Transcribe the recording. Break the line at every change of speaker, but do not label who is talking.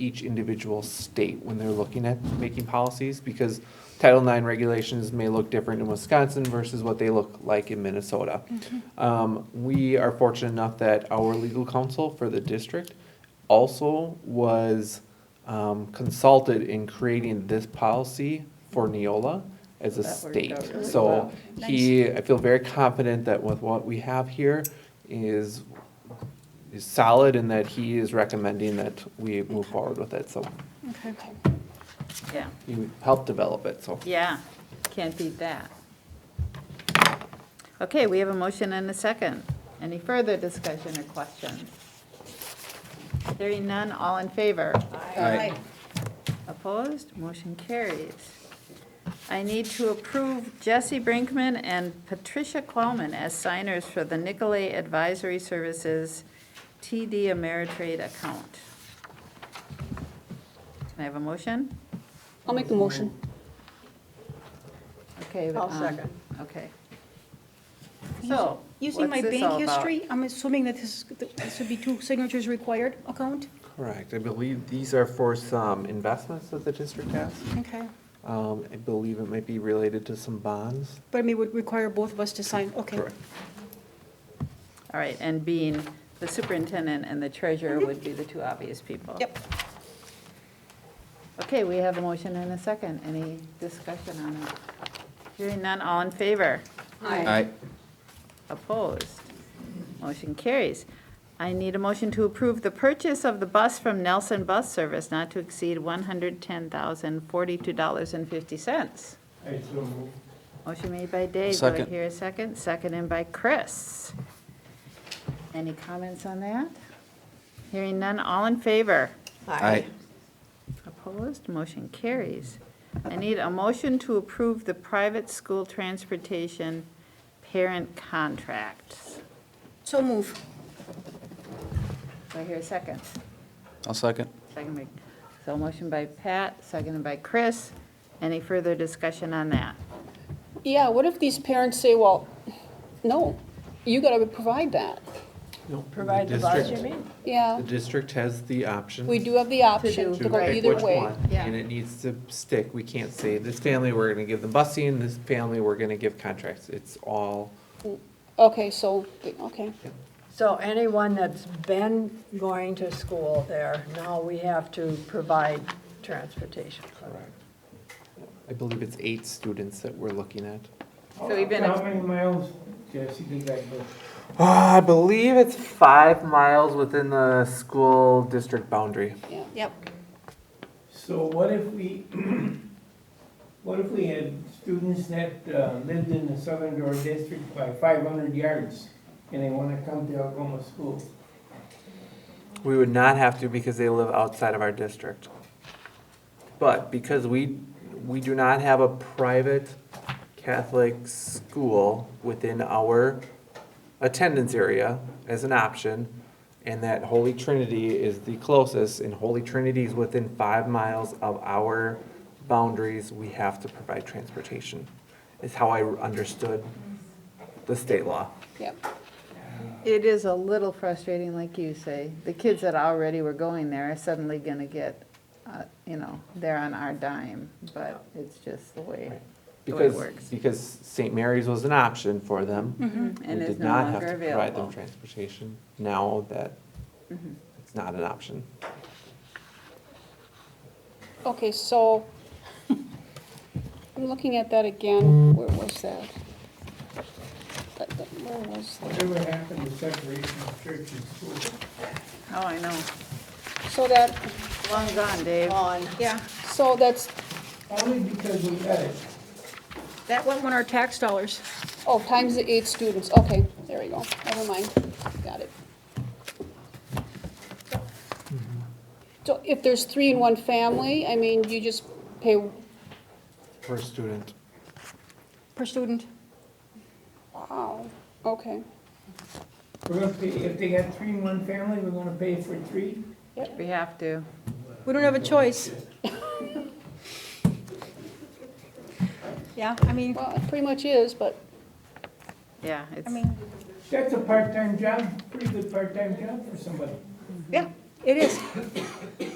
each individual state when they're looking at making policies, because Title IX regulations may look different in Wisconsin versus what they look like in Minnesota. Um, we are fortunate enough that our legal counsel for the district also was um, consulted in creating this policy for Neola as a
That worked
state.
out really
So
well.
he, I feel very confident that with what we have here is, is solid and that he is recommending that we move forward with it. So
Okay.
Yeah,
he helped develop it, so.
yeah, can't beat that. Okay, we have a motion and a second. Any further discussion or questions? Hearing none, all in favor?
Aye.
Opposed? Motion carries. I need to approve Jesse Brinkman and Patricia Qualman as signers for the Nicolay Advisory Services TD Ameritrade account. Can I have a motion?
I'll make the motion.
Okay.
I'll
um,
second.
Okay. So.
Using my
what's this all
bank
about?
history, I'm assuming that this, is- this would be two signatures required account?
Correct. I believe these are for some investments that the district has.
Okay.
Um, I believe it might be related to some bonds.
But I mean, would require both of us to sign, okay.
Correct.
All right, and being the superintendent and the treasurer would be the two obvious people.
Yep.
Okay, we have a motion and a second. Any discussion on it? Hearing none, all in favor?
Aye.
Opposed? Motion carries. I need a motion to approve the purchase of the bus from Nelson Bus Service not to exceed $110,042.50.
I so move.
Motion made by Dave. Do I
Second.
hear a second? Seconded by Chris. Any comments on that? Hearing none, all in favor?
Aye.
Opposed, motion carries. I need a motion to approve the private school transportation parent contracts.
So move.
Do I hear a second?
I'll second.
Second by, so motion by Pat, seconded by Chris. Any further discussion on that?
Yeah, what if these parents say, well, no, you gotta provide that?
Provide the bus, you mean?
Yeah,
The district has the option.
we do have the option
do-
to go
right.
pick
either
which
way.
one,
Yeah.
And it needs to stick. We can't say, this family, we're gonna give them busing, this family, we're gonna give contracts. It's all,
Okay, so, okay,
So anyone that's been going to school there, now we have to provide transportation.
I believe it's eight students that we're looking at.
So we've been-
How many miles, Jesse, did that go?
Ah, I believe it's five miles within the school district boundary.
yeah.
Yep.
So what if we, what if we had students that uh, lived in the Southern Door District by five hundred yards and they wanna come to Algoma School?
We would not have to because they live outside of our district. But because we, we do not have a private Catholic school within our attendance area as an option, and that Holy Trinity is the closest, and Holy Trinity is within five miles of our boundaries, we have to provide transportation, is how I understood the state law.
Yep.
It is a little frustrating, like you say. The kids that already were going there are suddenly going to get, uh, you know, they're on our dime, but it's just the way. The way it
Because,
works.
because St. Mary's was an option for them.
Mm-hmm. And
we
it's
did
no
not have
longer
to provide them
available. Mm-hmm.
transportation now that it's not an option.
Okay, so, I'm looking at that again, where was that? That- that- Where was that?
Whatever happened to separation of church and school?
Oh, I know.
So that,
Long gone, Dave.
On,
Yeah,
so that's,
Only because we got it.
that went on our tax dollars.
oh, times the eight students, okay, there we go, never mind, got it. So if there's three in one family, I mean, you just pay,
For a student.
Per student.
wow, okay,
We're gonna pay, if they got three in one family, we're gonna pay for three?
We have to.
We don't have a choice. Yeah, I mean,
well, it pretty much is, but,
Yeah, it's,
I mean,
That's a part-time job, pretty good part-time job for somebody.
yeah, it is.